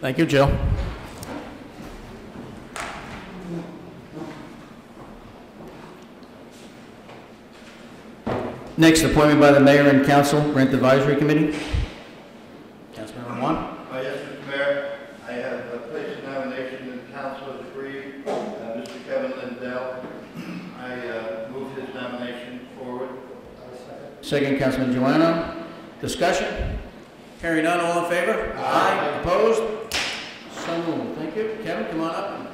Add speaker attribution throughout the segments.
Speaker 1: Thank you, Jill. Next, appointment by the mayor and council, Rent Advisory Committee. Councilmember Juan?
Speaker 2: Uh, Yes, Mr. Mayor, I have uh, placed a nomination in council has agreed, uh, Mr. Kevin Lindell. I uh, move his nomination forward.
Speaker 1: Second, Councilman Joanna. Discussion? Hearing none, all in favor? Aye. Opposed? So moved. Thank you. Kevin, come on up.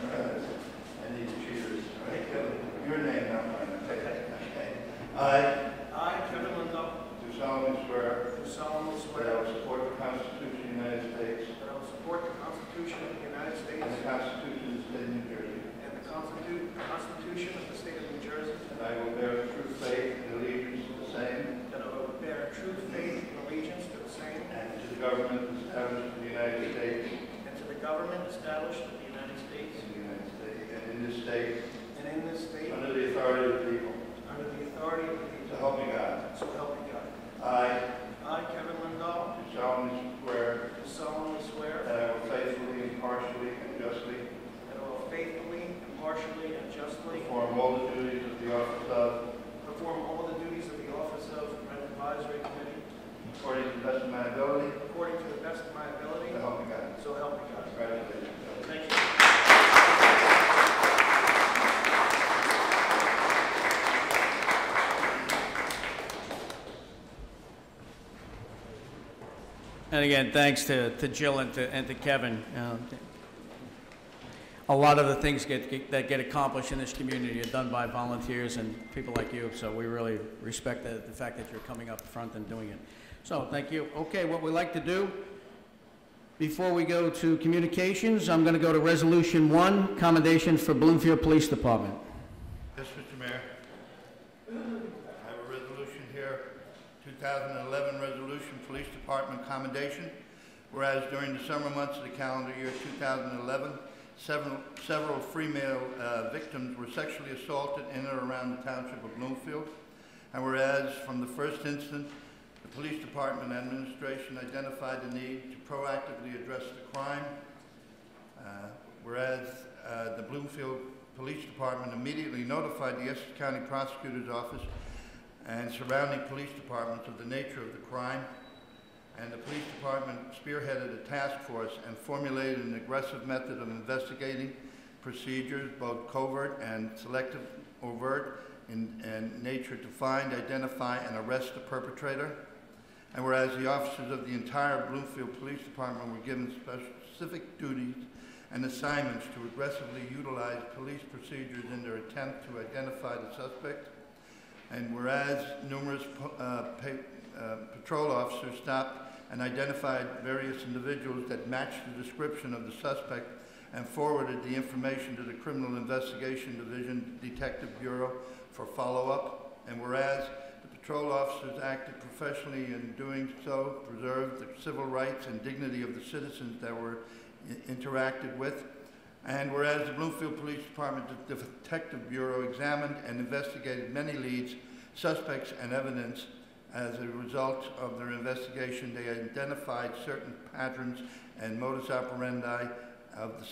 Speaker 2: Uh, I need cheaters. All right, Kevin, your name, not mine. Okay. I
Speaker 3: I, Kevin Lindell,
Speaker 2: do solemnly swear
Speaker 3: do solemnly
Speaker 2: that
Speaker 3: swear
Speaker 2: I will support the Constitution of the United States
Speaker 3: that I will support the Constitution of the United States
Speaker 2: and the Constitution of the State of New Jersey,
Speaker 3: and the Constitu- Constitution of the State of New Jersey,
Speaker 2: and I will bear true faith and allegiance to the same
Speaker 3: that I will bear true faith and allegiance to the same
Speaker 2: and to the government established in the United States
Speaker 3: and to the government established in the United States
Speaker 2: in the United States and in this state
Speaker 3: and in this state
Speaker 2: Under the authority of the people.
Speaker 3: under the authority of the
Speaker 2: So
Speaker 3: people.
Speaker 2: help me God.
Speaker 3: So help me God.
Speaker 2: I
Speaker 3: I, Kevin Lindell,
Speaker 2: do solemnly swear
Speaker 3: do solemnly
Speaker 2: that
Speaker 3: swear
Speaker 2: I will faithfully, impartially, and justly
Speaker 3: that I will faithfully, impartially, and justly
Speaker 2: perform all the duties of the office of,
Speaker 3: perform all the duties of the office of Rent Advisory Committee
Speaker 2: according to the best of my ability.
Speaker 3: according to the best of my ability.
Speaker 2: So help me God.
Speaker 3: So help me God.
Speaker 2: Congratulations.
Speaker 3: Thank you.
Speaker 1: And again, thanks to, to Jill and to, and to Kevin. Um, A lot of the things get, that get accomplished in this community are done by volunteers and people like you, so we really respect the, the fact that you're coming up front and doing it. So, thank you. Okay, what we like to do, before we go to communications, I'm gonna go to Resolution One, commendations for Bloomfield Police Department.
Speaker 2: Yes, Mr. Mayor. I have a resolution here, 2011 Resolution Police Department Commendation. Whereas during the summer months of the calendar year 2011, several several female uh, victims were sexually assaulted in or around the township of Bloomfield. And whereas from the first instant, the police department administration identified the need to proactively address the crime. Uh, Whereas uh, the Bloomfield Police Department immediately notified the Essex County Prosecutor's Office and surrounding police departments of the nature of the crime, and the police department spearheaded a task force and formulated an aggressive method of investigating procedures, both covert and selective overt in, in nature, to find, identify, and arrest the perpetrator. And whereas the officers of the entire Bloomfield Police Department were given specific duties and assignments to aggressively utilize police procedures in their attempt to identify the suspect. And whereas numerous po- uh, pa- uh, patrol officers stopped and identified various individuals that matched the description of the suspect and forwarded the information to the Criminal Investigation Division Detective Bureau for follow-up. And whereas the patrol officers acted professionally and doing so preserved the civil rights and dignity of the citizens that were i- interacted with. And whereas the Bloomfield Police Department De- Detective Bureau examined and investigated many leads, suspects, and evidence, as a result of their investigation, they identified certain patterns and modus operandi of the